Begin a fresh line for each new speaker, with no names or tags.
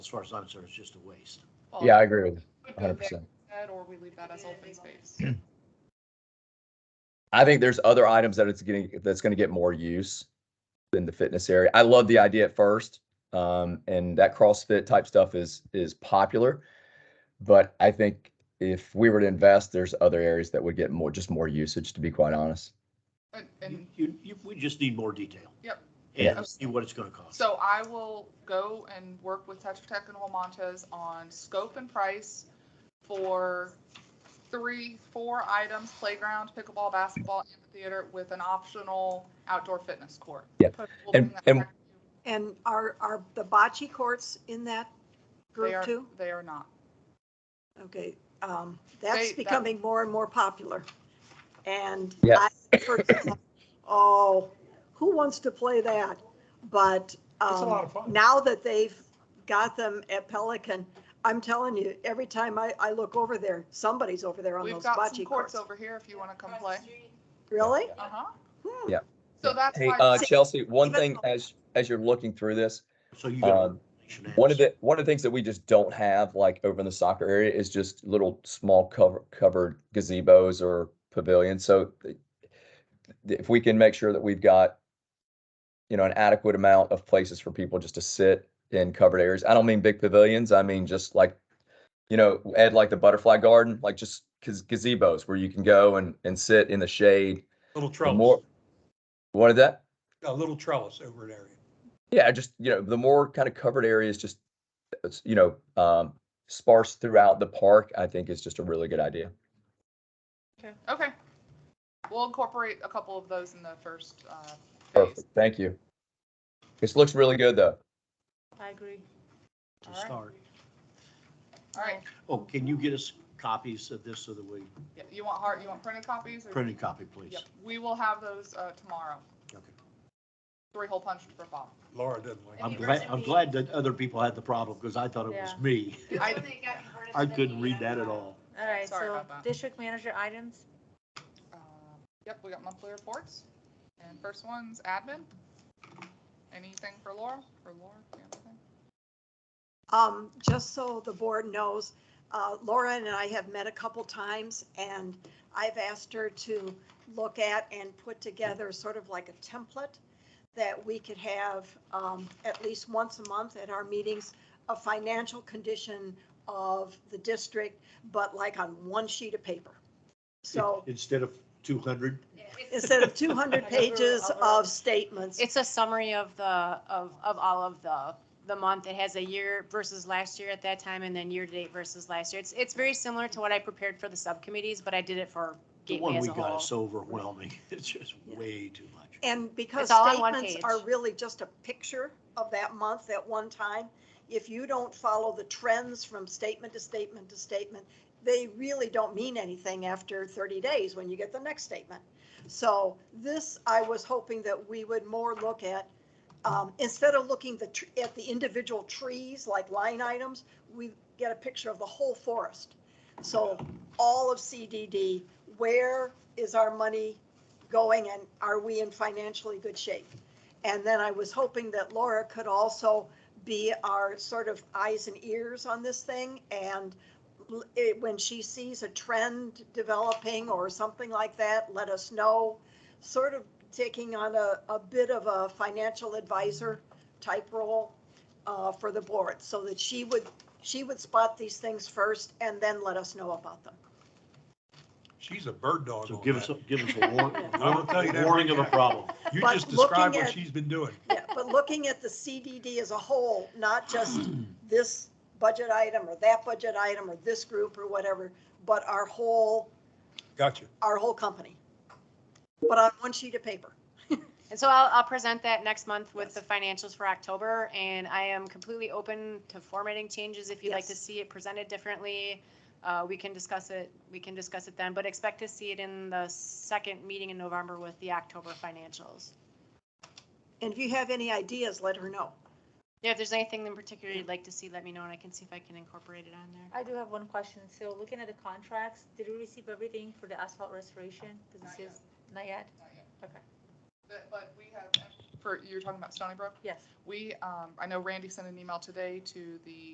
as far as I'm concerned, it's just a waste.
Well,
Yeah, I agree with
we go
hundred
back
percent.
to that, Or we leave that as open space.
I think there's other items that it's getting, that's gonna get more use than the fitness area. I love the idea at first. Um, and that CrossFit type stuff is, is popular. But I think if we were to invest, there's other areas that would get more, just more usage, to be quite honest.
And-
You,
And
you, you- we just need more detail.
Yep. Yeah.
And see what it's gonna cost.
so I will go and work with Tetra Tech and Holmontes on scope and price for three, four items, playground, pickleball, basketball, amphitheater with an optional outdoor fitness court.
Yeah.
We'll
And-
bring that
and-
back to you.
And are, are the bocce courts in that
They
group
are-
too?
They are not.
Okay, um,
They-
that's
that-
becoming more and more popular. And
Yeah.
I, for example, oh, who wants to play that? But,
It's a lot
um,
of fun.
now that they've got them at Pelican, I'm telling you, every time I, I look over there, somebody's over there on
We've
those
got
bocce
some courts
courts.
over here if you want to come play.
Really?
Uh-huh.
Hmm.
Yeah.
So that's
Hey,
why.
uh,
See-
Chelsea, one
even-
thing as, as you're looking through this,
So you got.
Um, one of the, one of the things that we just don't have, like over in the soccer area, is just little small cover, covered gazebos or pavilions. So th- if we can make sure that we've got, you know, an adequate amount of places for people just to sit in covered areas. I don't mean big pavilions. I mean just like, you know, Ed, like the butterfly garden, like just gaz- gazebos where you can go and, and sit in the shade.
Little
The more,
trellis,
what is that?
a little trellis over an area.
Yeah, just, you know, the more kind of covered areas, just, it's, you know, um, sparse throughout the park, I think is just a really good idea.
Okay. We'll incorporate a couple of those in the first uh, phase.
Perfect. Thank you. This looks really good though.
I agree.
To start.
All right.
Oh, can you get us copies of this so that we,
Yeah, You want hard, you want printed copies? or-
printed copy, please?
Yep. We will have those uh, tomorrow.
Okay.
Three hole punched for Bob.
Laura doesn't like.
I'm
it.
glad, I'm glad that other people had the problem because I thought it was
Yeah.
me.
I-
I couldn't read that
uh,
at all.
All right,
Sorry
so
about that.
district manager items,
Um, Yep, we got monthly reports. And first one's admin. Anything for Laura? For Laura? Yeah, okay.
Um, just so the board knows, uh, Laura and I have met a couple times and I've asked her to look at and put together sort of like a template that we could have, um, at least once a month at our meetings, a financial condition of the district, but like on one sheet of paper. So
Instead of two hundred,
instead of two hundred pages of statements.
It's a summary of the, of, of all of the, the month. It has a year versus last year at that time and then year-to-date versus last year. It's, it's very similar to what I prepared for the subcommittees, but I did it for
the
Gateway
one
as
we
a
got
whole.
is so overwhelming. It's just way too much.
And because
It's all on one
statements
page.
are really just a picture of that month at one time, if you don't follow the trends from statement to statement to statement, they really don't mean anything after 30 days when you get the next statement. So this, I was hoping that we would more look at, um, instead of looking the, tr- at the individual trees like line items, we get a picture of the whole forest. So all of CDD, where is our money going and are we in financially good shape? And then I was hoping that Laura could also be our sort of eyes and ears on this thing and l- it- when she sees a trend developing or something like that, let us know. Sort of taking on a, a bit of a financial advisor type role uh, for the board so that she would, she would spot these things first and then let us know about them.
She's a bird dog
So
on
give us, a
that.
give us a warning,
I'll tell you that
warning of
right
a
now.
problem.
You
but
just
looking
described what
at-
she's been doing.
Yeah, but looking at the CDD as a whole, not just this budget item or that budget item or this group or whatever, but our whole,
Gotcha.
our whole company. But on one sheet of paper.
And so I'll, I'll present that next month with the financials for October, and I am completely open to formatting changes if you'd like to
Yes.
see it presented differently. Uh, we can discuss it, we can discuss it then, but expect to see it in the second meeting in November with the October financials.
And if you have any ideas, let her know.
Yeah, if there's anything in particular you'd like to see, let me know and I can see if I can incorporate it on there.
I do have one question. So looking at the contracts, did we receive everything for the asphalt restoration? Because
Not
it says, not yet?
Not yet.
Okay,
But, but we have, for, you're talking about Stony Brook?
yes.
We, um, I know Randy sent an email today to the